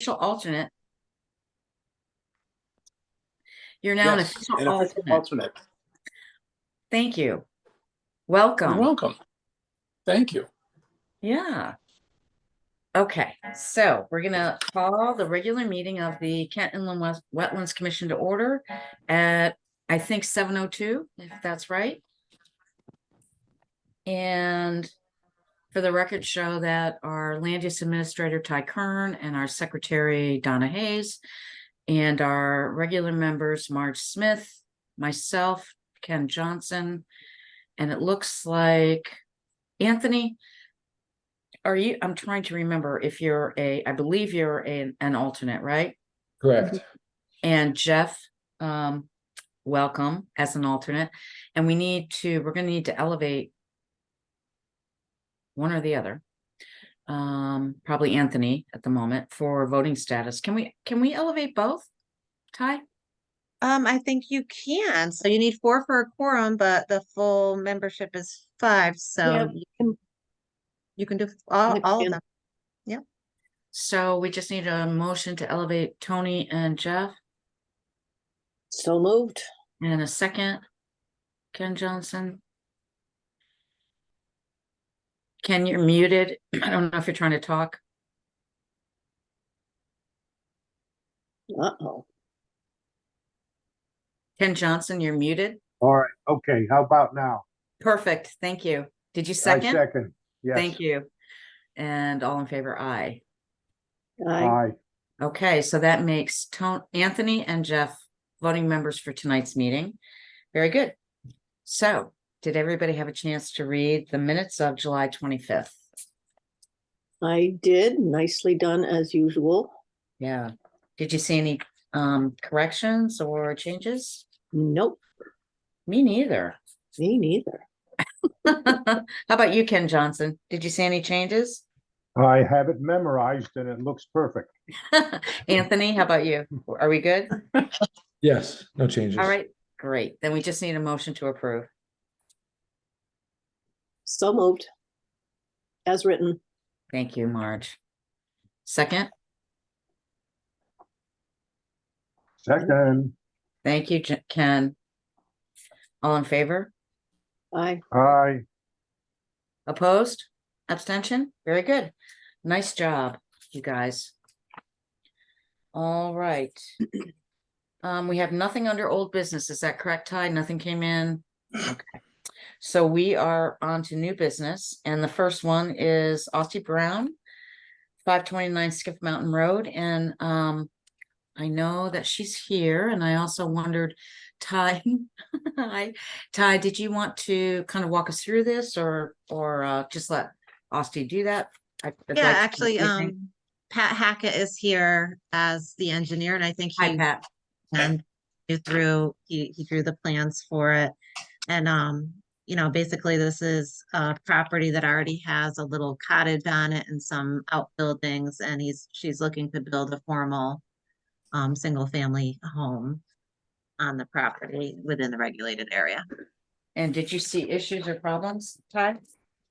official alternate. You're now an Yes, official an official alternate. alternate. Thank you. You're Welcome. welcome. Thank you. Yeah. Okay, so we're gonna call the regular meeting of the Kent Inland Wes- Wetlands Commission to order at, I think, seven oh two, if that's right. And for the record, show that our land use administrator Ty Kern and our secretary Donna Hayes and our regular members Marge Smith, myself, Ken Johnson, and it looks like Anthony are you, I'm trying to remember if you're a, I believe you're an, an alternate, right? Correct. Mhm. And Jeff, um, welcome as an alternate. And we need to, we're gonna need to elevate one or the other. Um, probably Anthony at the moment for voting status. Can we, can we elevate both? Ty? Um, I think you can. So you need four for a quorum, but the full membership is five, so you can. You can do f- all, all of them. So we just need a motion to elevate Tony and Jeff So moved. and a second. Ken Johnson. Ken, you're muted. I don't know if you're trying to talk. Uh-oh. Ken Johnson, you're muted. All right, okay, how about now? Perfect. Thank you. Did you I second? Second, yes. Thank you. And all in favor, aye. I Aye, Okay, so that makes Tone, Anthony and Jeff voting members for tonight's meeting. Very good. So did everybody have a chance to read the minutes of July twenty-fifth? I did. Nicely done as usual. Yeah. Did you see any um corrections or changes? Nope, Me neither. me neither. How about you, Ken Johnson? Did you see any changes? I have it memorized and it looks perfect. Anthony, how about you? Are we good? Yes, no changes. All right, great. Then we just need a motion to approve. So moved. As written. Thank you, Marge. Second, Second, thank you, J- Ken. All in favor? I, aye, Opposed? Abstention? Very good. Nice job, you guys. All right. Um, we have nothing under old business. Is that correct, Ty? Nothing came in? Okay. So we are on to new business and the first one is Austin Brown, five twenty-nine Skiff Mountain Road and, um, I know that she's here and I also wondered, Ty, hi, Ty, did you want to kind of walk us through this or, or, uh, just let Austin do that? I- I'd like to Yeah, know actually, what you think. um, Pat Hackett is here as the engineer and I think Hi, he Pat. and drew through, he, he drew the plans for it. And, um, you know, basically this is a property that already has a little cottage on it and some outbuildings and he's, she's looking to build a formal, um, single-family home on the property within the regulated area. And did you see issues or problems, Ty?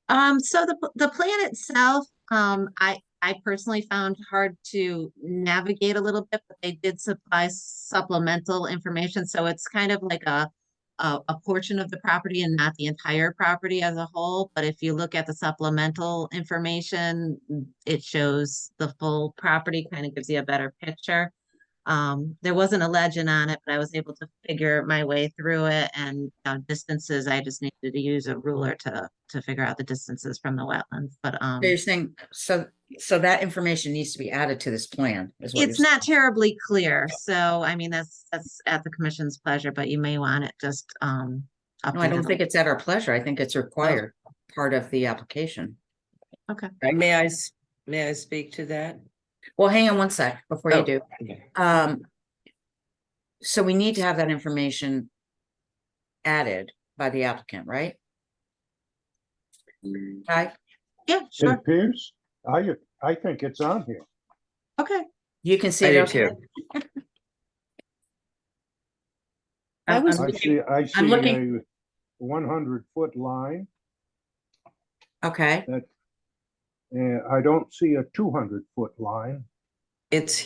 Um, so the, p- the plan itself, um, I, I personally found hard to navigate a little bit, but they did supply supplemental information, so it's kind of like a, a, a portion of the property and not the entire property as a whole, but if you look at the supplemental information, mm, it shows the full property, kind of gives you a better picture. Um, there wasn't a legend on it, but I was able to figure my way through it and uh, distances. I just needed to use a ruler to to figure out the distances from the wetlands. But um, So You're saying, so, so that information needs to be added to this plan is what you're it's not terribly clear. So I mean, that's that's at the commission's pleasure, but you may want it just um. saying? No, I don't updated. think it's at our pleasure. I think it's required part of the application. May I, s- may I speak to that? Well, hang on one sec before you Oh, do. okay. Um, so we need to have that information added by the applicant, right? Ty, Yeah, it sure. appears, I, I think it's on here. Okay. you can see. I it. do okay? I I'm- was- I'm I looking- see, I see looking- a one hundred foot line, Okay. and I don't see a two hundred foot line. It's